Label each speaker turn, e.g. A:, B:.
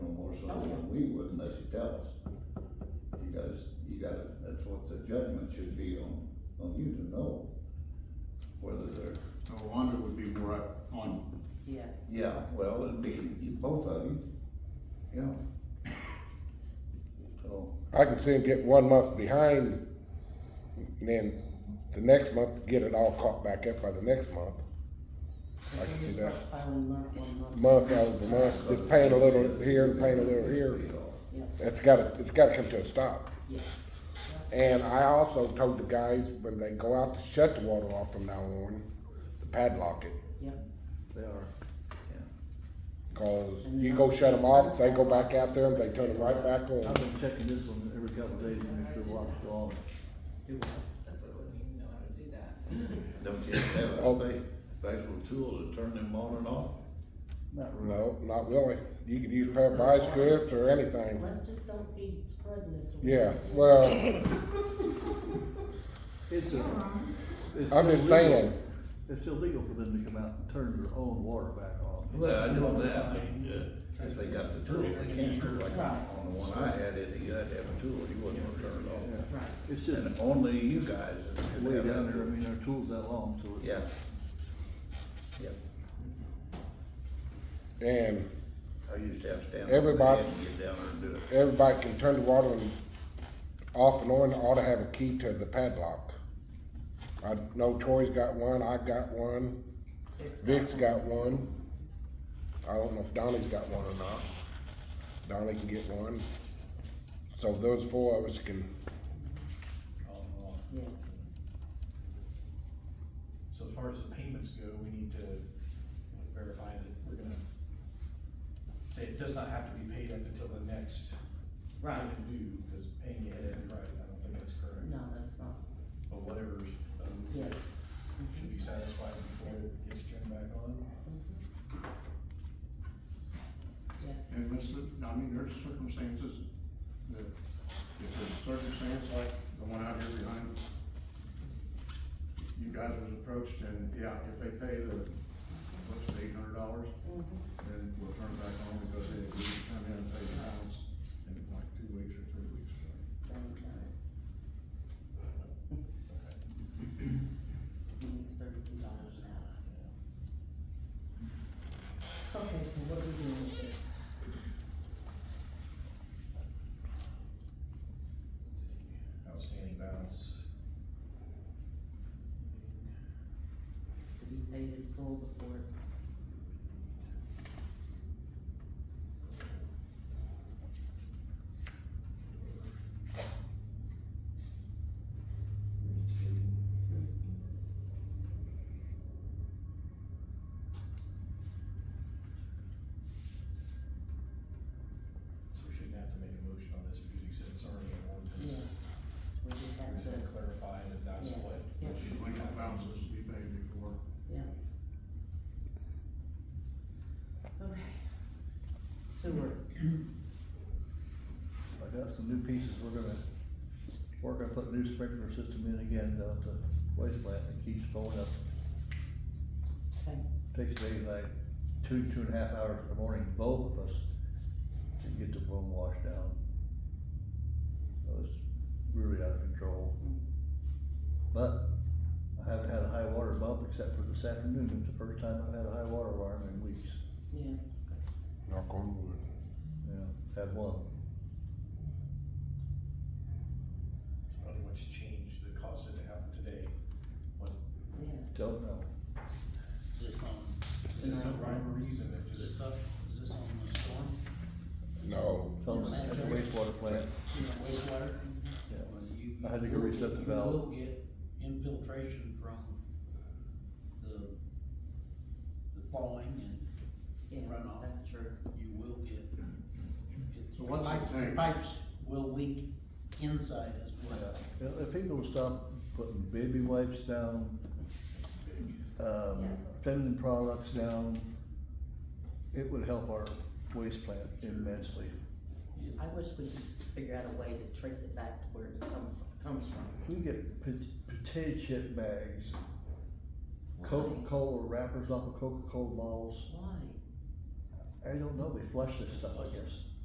A: Oh,
B: we would unless you tell us. You gotta, you gotta, that's what the judgment should be on, on you to know whether they're.
C: No, Wanda would be more up on,
D: Yeah,
B: Yeah, well, it'd be. Both of you, yeah. So,
E: I can see him get one month behind, and then the next month, get it all caught back up by the next month. I can see that.
D: filing month one month,
E: Month out of the month, just paying a little here and paying a little here.
D: yeah,
E: It's gotta, it's gotta come to a stop.
D: yeah.
E: And I also told the guys when they go out to shut the water off from now on, to padlock it.
D: Yeah,
B: They are. Yeah,
E: Cause you go shut them off, they go back out there and they turn it right back
A: I've
E: on.
A: been checking this one every couple of days to make sure water's on.
D: do what?
F: That's what I wouldn't even know how to do that.
B: don't you have a
E: Oh.
B: spe- special tool to turn them on and off?
A: Not really.
E: No, not really. You could use a pair of ice grips or anything.
D: Let's just don't be spreading this. around.
E: Yeah, well,
A: It's a. it's
E: I'm just
A: still legal.
E: saying,
A: It's illegal for them to come out and turn their own water back on.
B: Well, I know that, I mean, uh, if they got the tool, they can't, 'cause like on the one I had, it, you had to have a tool, you wasn't gonna turn
A: Yeah.
B: it
D: Right.
A: It's
B: off.
A: just
B: And only you guys. can
A: way
B: have that.
A: down there, I mean, our tool's that long, so. it's-
B: Yeah. Yeah,
E: and
B: I used to have to stand. up and
E: Everybody-
B: Get down there and do it.
E: everybody can turn the water and off and on, ought to have a key to the padlock. I know Troy's got one, I've got one, Vic's got one. I don't know if Donnie's got one or not. Donnie can get one. So those four of us can,
D: Yeah,
G: So as far as the payments go, we need to like, verify that we're gonna say it does not have to be paid up until the next
D: right,
G: payment due, because paying it ahead, right, I don't think that's
D: no,
G: correct.
D: that's not,
G: But whatever's, um,
D: yes.
G: should be satisfied before it gets turned back on.
D: Yeah,
C: and this, is- I mean, there's circumstances that, if there's a circumstance like the one out here behind, you guys was approached and, yeah, if they pay the, what's it, eight hundred dollars, then we'll turn it back on because they agreed to come in and pay the balance in like two weeks or three weeks.
D: there you go. He needs thirty-two dollars an hour. Okay, so what are we doing with this?
G: Outstanding balance.
D: To be paid in full before it
G: So we shouldn't have to make a motion on this because you said it's already an
D: Yeah,
G: ordinance.
D: we just
G: We're
D: have
G: just
D: to,
G: gonna clarify that that's
D: Yeah.
G: what.
D: Yeah.
G: what should
C: Just
G: be
C: like that
G: happening.
C: balance is to be paid before.
D: yeah. Okay. Sewer,
A: I got some new pieces, we're gonna, we're gonna put a new sprinkler system in again down at the waste plant, it keeps going up.
D: okay,
A: Takes me like two, two and a half hours in the morning, both of us, to get the room washed down. So it's really out of control. But I haven't had a high water bump except for this afternoon, it's the first time I've had a high water alarm in weeks,
D: yeah,
E: knock on wood.
A: yeah, had one.
G: It's Probably what's changed that caused it to happen today. What,
D: yeah,
A: Don't know.
H: Is this
G: is
H: on,
G: this a rhyme or reason that
H: is
G: just,
H: this up, is this on the storm,
E: No,
A: It's on the at the wastewater plant,
H: wastewater?
A: yeah.
H: Well, you-
A: I had to go reset the valve.
H: You will get infiltration from the, the thawing
D: yeah,
H: and runoff.
D: that's true.
H: You will get. it-
C: So what's it
H: pipes-
C: take?
H: Pipes will leak inside as well.
A: Yeah, If people would stop putting baby wipes down, um, feminine products down, it would help our waste plant immensely.
D: I wish we could figure out a way to trace it back to where it come, comes from.
A: If we get pot- potato chip bags, Coca-Cola wrappers off of Coca-Cola bottles,
D: Why?
A: I don't know, they flush this stuff, I guess.